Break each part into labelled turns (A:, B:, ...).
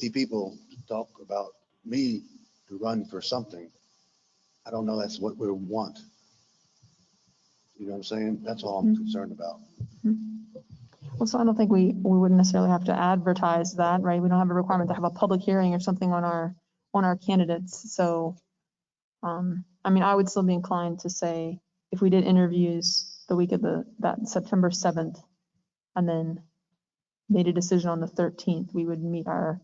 A: 50 people talk about me to run for something, I don't know that's what we want. You know what I'm saying? That's all I'm concerned about.
B: Well, so I don't think we, we wouldn't necessarily have to advertise that, right? We don't have a requirement to have a public hearing or something on our, on our candidates, so. Um, I mean, I would still be inclined to say, if we did interviews the week of the, that September seventh, and then made a decision on the thirteenth, we would meet our,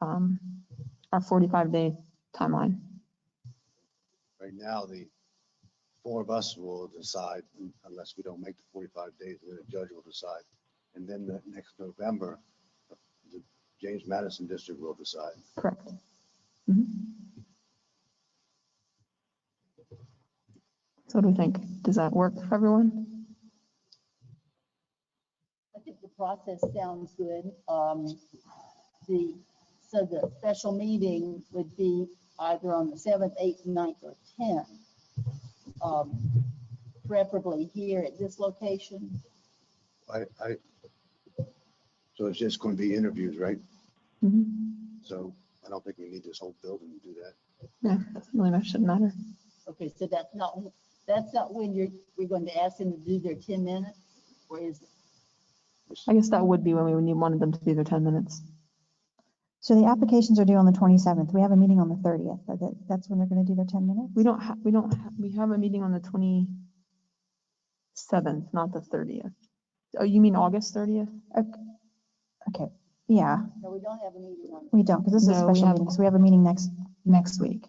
B: um, our forty-five day timeline.
A: Right now, the four of us will decide, unless we don't make the 45 days, then the judge will decide. And then the next November, the James Madison District will decide.
B: Correct. Mhm. So what do we think? Does that work for everyone?
C: I think the process sounds good. Um, the, so the special meeting would be either on the seventh, eighth, ninth, or tenth. Um, preferably here at this location.
A: I, I, so it's just going to be interviews, right?
B: Mhm.
A: So I don't think we need this whole building to do that.
B: Yeah, doesn't really much shouldn't matter.
C: Okay, so that's not, that's not when you're, we're going to ask them to do their ten minutes, or is,
B: I guess that would be when we would need one of them to do their 10 minutes.
D: So
B: Mm-hmm.
D: the applications are due on the 27th. We have a meeting on the 30th. but that- That's when they're going to do their 10 minutes?
B: We don't have, we don't, ha- we have a meeting on the 27th, not the 30th. Oh, you mean August 30th?
D: Okay, yeah,
C: no, we don't have a meeting on.
D: we don't, because this is a
B: No, we
D: special
B: have-
D: meeting, so we have a meeting next, next week.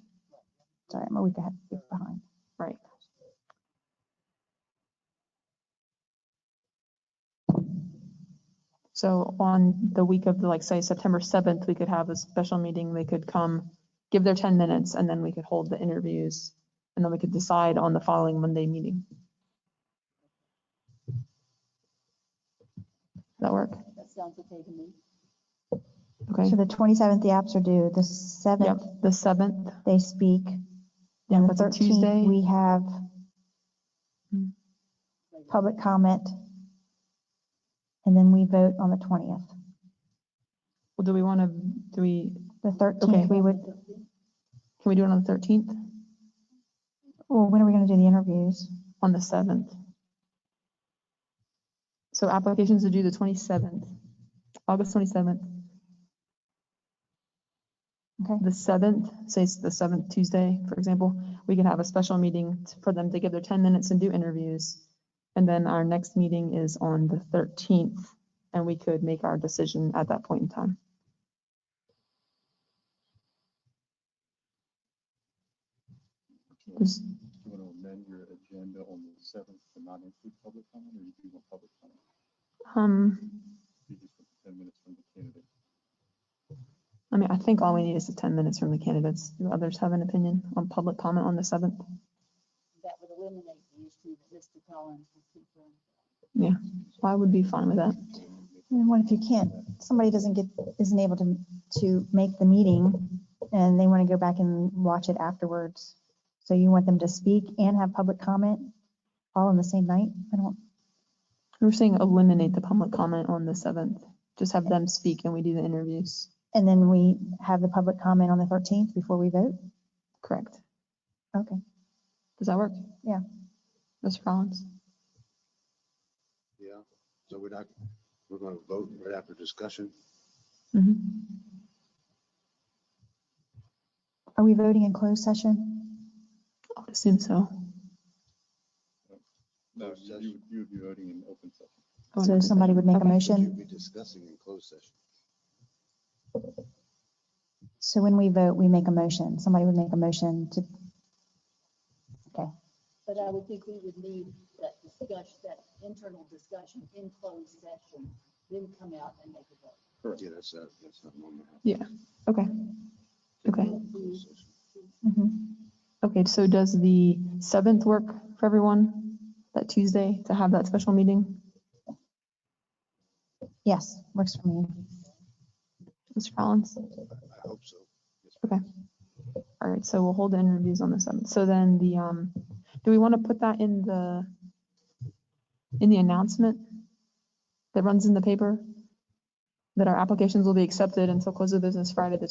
D: Sorry, I'm a week ahead, week behind.
B: Right. So on the week of, like, say, September 7th, we could have a special meeting. They could come, give their 10 minutes, and then we could hold the interviews. And then we could decide on the following Monday meeting. Does that work?
C: That sounds okay to me.
B: Okay.
D: So the 27th, the apps are due, the
B: Yep,
D: 7th,
B: the 7th.
D: they speak.
B: Yeah,
D: On the
B: that's a
D: 13th,
B: Tuesday.
D: We have
B: Hmm.
D: public comment. And then we vote on the 20th.
B: Well, Do we want to, do we,
D: The
B: Okay.
D: 13th, we would,
B: can we do it on the 13th?
D: well, when are we going to do the interviews?
B: On the 7th? So applications are due the 27th, August 27th.
D: Okay.
B: The 7th, say it's the 7th Tuesday, for example, we could have a special meeting t- for them to give their 10 minutes and do interviews. And then our next meeting is on the 13th, and we could make our decision at that point in time. Does-
E: Do you want to amend your agenda on the seventh to not include public comment, or you do want public comment?
B: Um,
E: You just want ten minutes from the candidate.
B: I mean, I think all we need is the ten minutes from the candidates. Do others have an opinion on public comment on the seventh?
C: That would eliminate the issue that Mr. Collins was concerned.
B: I would be fine with that.
D: And what if you can't, somebody doesn't get, isn't able to, to make the meeting and they want to go back and watch it afterwards? So you want them to speak and have public comment all on the same night? I don't,
B: We We're saying eliminate the public comment on the seventh. Just have them speak and we do the interviews.
D: and then we have the public comment on the 13th before we vote?
B: Correct.
D: Okay.
B: Does that work?
D: Yeah.
B: Mr. Collins?
A: Yeah, so we're not, we're going to vote right after discussion.
B: Mm-hmm.
D: Are we voting in closed session?
B: I would assume so.
E: No,
A: Closed
E: you- you, would- you would be voting in open session.
B: I would
D: So
B: hope
D: somebody would make a
B: Okay.
A: You'll
D: motion.
A: be discussing in closed session.
D: So when we vote, we make a motion. Somebody would make a motion to,
C: But I would think we would need that discussion, that internal discussion in closed session, then come out and make a vote.
E: Correct.
A: Yeah, that's, uh, that's not normal.
B: Okay. Okay.
A: Closed session.
D: Mhm.
B: Okay, so does the seventh work for everyone? That Tuesday to have that special meeting?
D: yes, works for me.
B: Mr. Collins?
A: I hope so.
B: All right, so we'll hold the interviews on the seventh. So then the, um, do we want to put that in the, in the announcement that runs in the paper? that our applications will be accepted until close of business Friday, the